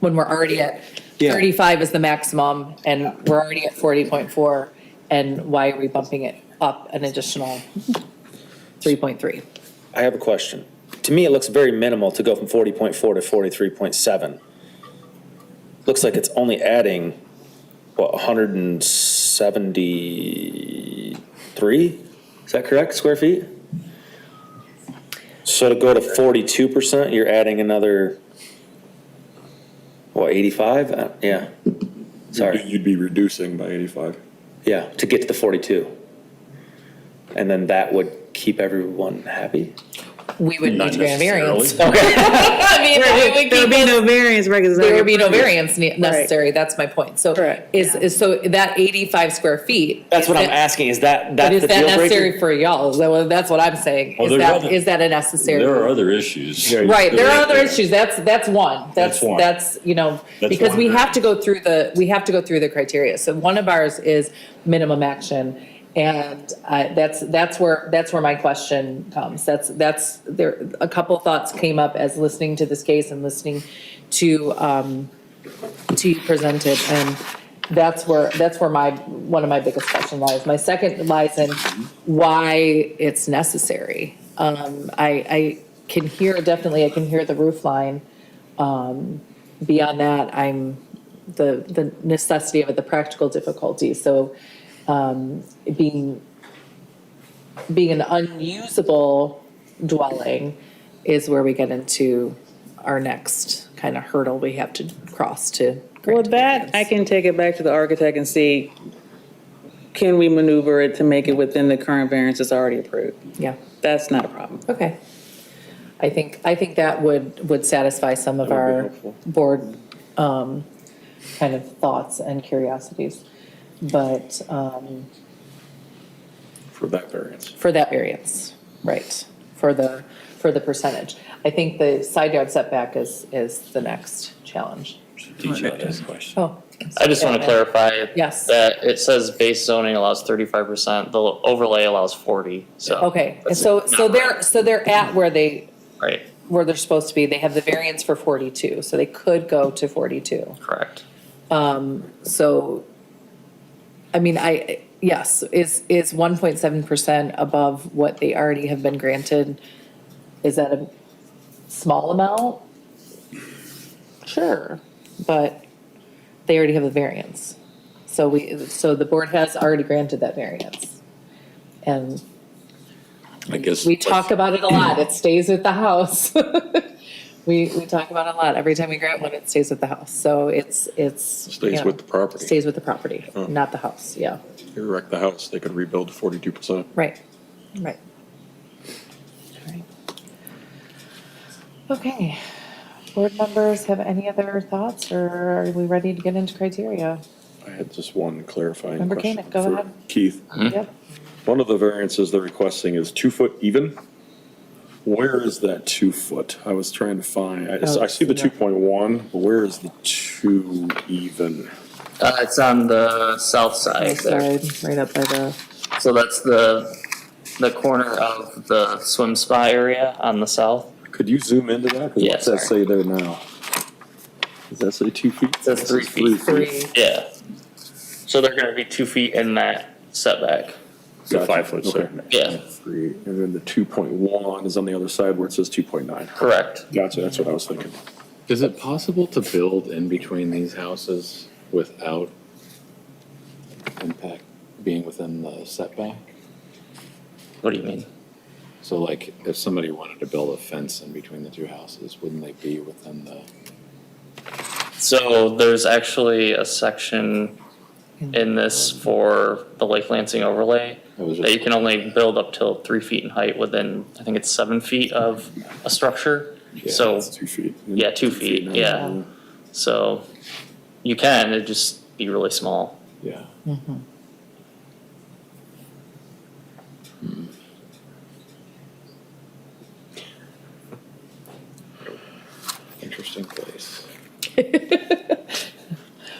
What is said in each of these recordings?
when we're already at Yeah. 35 is the maximum and we're already at 40.4. And why are we bumping it up an additional 3.3? I have a question. To me, it looks very minimal to go from forty point four to forty-three point seven. Looks like it's only adding, what, hundred and seventy-three? Is that correct, square feet? So to go to forty-two percent, you're adding another, what, eighty-five? Uh, Yeah, sorry. You'd be reducing by 85. Yeah, to get to the forty-two. And then that would keep everyone happy? We would need Not to grant variance. necessarily. I mean, it would There would keep be us- no variance, right? 'cause it's not There your would be no property. variance ne- necessary, that's my point. So Correct. is, is, so that 85 square feet. That's what is I'm that- asking, is But that, that's is the that deal breaker? necessary for y'all? Is that what- That's what I'm saying. Well, Is there's that, other- is that a necessary? There are other issues. Right, there are other issues, that's, that's one, that's, That's one. that's, you know, That's because we one. have to go through the, we have to go through the criteria. So one of ours is minimum action, and uh, that's, that's where, that's where my question comes. That's, that's, there, a couple thoughts came up as listening to this case and listening to, um, to you presented, and that's where, that's where my, one of my biggest question lies. My second lies in why it's necessary. Um, I, I can hear, definitely, I can hear the roof line. Um, beyond that, I'm, the, the necessity of it, the practical difficulty, so, um, it being, being an unusable dwelling is where we get into our next kind of hurdle we have to cross to. Well, grant that, I variance. can take it back to the architect and see, can we maneuver it to make it within the current variance that's already approved? Yeah, That's not a problem. okay. I think, I think that would, would satisfy some of would be our helpful. board, um, kind of thoughts and curiosities. But, um, For that variance. For that variance, right, for the, for the percentage. I think the side yard setback is, is the next challenge. Teacher has a question. Oh. I just want to clarify. Yes. That it says base zoning allows thirty-five percent, the overlay allows forty, so. Okay, that's so, so not they're, so they're at where they, Right, where they're supposed to be. They have the variance for forty-two, so they could go to forty-two. correct. So, I mean, I, yes, is, is one point seven percent above what they already have been granted? Is that a small amount? Sure, but they already have the variance. So we, so the board has already granted that variance. And I guess. we talk about it a lot, it stays with the house. We, we talk about it a lot, every time we grant one, it stays with the house, so it's, it's. Stays you know, with the property. Stays with the property, not the house, yeah, You wreck the house, they could rebuild 42%. right, right. Alright. Okay, board members have any other thoughts, or are we ready to get into criteria? I had just one clarifying Member question Koenig, go for ahead. Keith. Yep, One of the variances they're requesting is two foot even. Where is that two foot? I was trying to find, I, Oh, I see the two point one, but where is the two even? Uh, it's on the south side there, Sorry, right up by the, so that's the, the corner of the swim spa area on the south. Could you zoom into that? 'Cause Yeah, What's that sorry. say there now? Does that say two feet? says This three is feet. three, Yeah. So they're gonna be two feet in that setback. The Gotcha. five-foot Okay. setback. Yeah, Three, and then the two point one is on the other side where it says two point nine. correct. Gotcha, that's what I was thinking. Is it possible to build in between these houses without impact being within the setback? What do you mean? So like, if somebody wanted to build a fence in between the two houses, wouldn't they be within the? So there's actually a section in this for the Lake Lansing overlay I was that you just, can only build up till three feet in height within, I think it's seven feet of a structure. So, It's two feet. yeah, two feet, nine. yeah. So you can, it'd just be really small. yeah. Hmm. Interesting place.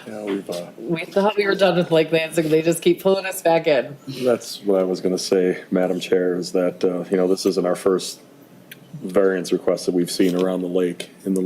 Yeah, we've, uh, we thought we were done with Lake Lansing, they just keep pulling us back in. That's what I was going to say, Madam Chair, is that, uh, you know, this isn't our first variance request that we've seen around the lake in the